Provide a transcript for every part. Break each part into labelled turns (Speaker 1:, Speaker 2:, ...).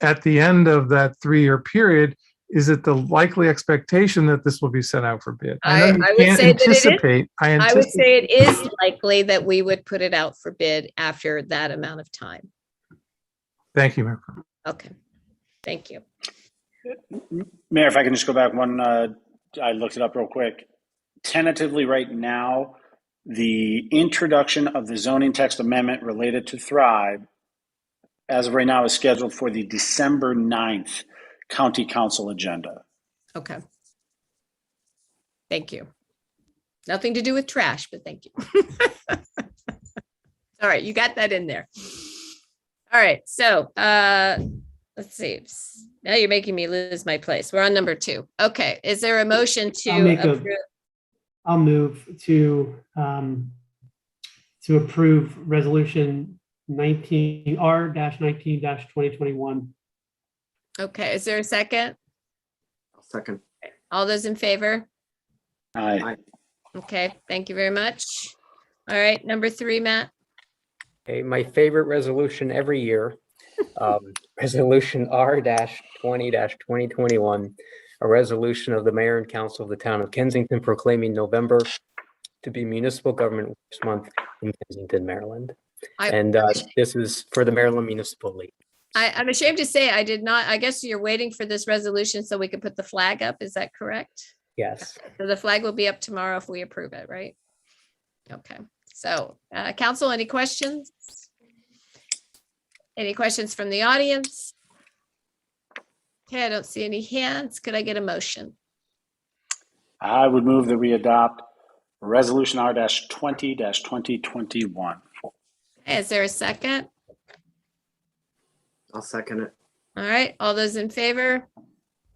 Speaker 1: at the end of that three-year period, is it the likely expectation that this will be sent out for bid? know you
Speaker 2: I- I would
Speaker 1: can't
Speaker 2: say that it is.
Speaker 1: anticipate- I
Speaker 2: I would
Speaker 1: anticipate,
Speaker 2: say it is likely that we would put it out for bid after that amount of time.
Speaker 1: thank you, Mayor. Pro Tem.
Speaker 2: Okay, thank you.
Speaker 3: Mayor, if I can just go back one, uh, I looked it up real quick. Tentatively, right now, the introduction of the zoning text amendment related to Thrive, as of right now, is scheduled for the December 9th county council agenda.
Speaker 2: Okay. Thank you. Nothing to do with trash, but thank you. All right, you got that in there. All right, so uh let's see. Now you're making me lose my place. We're on number two. Okay, is there a motion
Speaker 4: I'll
Speaker 2: to
Speaker 4: make a-
Speaker 2: approve?
Speaker 4: I'll move to, um, to approve resolution nineteen, R dash nineteen dash twenty twenty-one.
Speaker 2: Okay, is there a second?
Speaker 5: Second.
Speaker 2: All those in favor?
Speaker 3: Aye.
Speaker 2: Okay, thank you very much. All right, number three, Matt.
Speaker 5: Okay, my favorite resolution every year, um, Resolution R dash twenty dash twenty twenty-one, a resolution of the mayor and council of the town of Kensington proclaiming November to be Municipal Government Works Month in Kensington, Maryland.
Speaker 2: I-
Speaker 5: And uh, this is for the Maryland Municipal League.
Speaker 2: I, I'm ashamed to say I did not, I guess you're waiting for this resolution so we can put the flag up. Is that correct?
Speaker 5: Yes.
Speaker 2: So the flag will be up tomorrow if we approve it, right? Okay, so, uh, council, any questions? Any questions from the audience? Okay, I don't see any hands. Could I get a motion?
Speaker 3: I would move that we adopt Resolution R dash twenty dash twenty twenty-one.
Speaker 2: Is there a second?
Speaker 5: I'll second it.
Speaker 2: All right, all those in favor?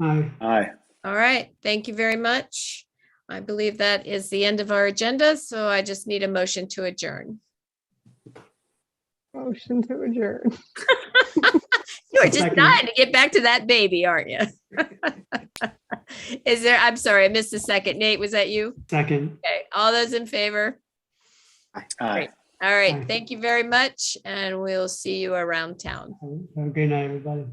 Speaker 4: Aye.
Speaker 3: Aye.
Speaker 2: All right, thank you very much. I believe that is the end of our agenda, so I just need a motion to adjourn.
Speaker 6: Motion to adjourn.
Speaker 2: You are just
Speaker 4: Second.
Speaker 2: dying to get back to that baby, aren't you? Is there, I'm sorry, I missed the second. Nate, was that you?
Speaker 4: Second.
Speaker 2: Okay, all those in favor?
Speaker 3: Aye.
Speaker 2: All right,
Speaker 4: Aye.
Speaker 2: thank you very much, and we'll see you around town.
Speaker 4: Have a great night, everybody.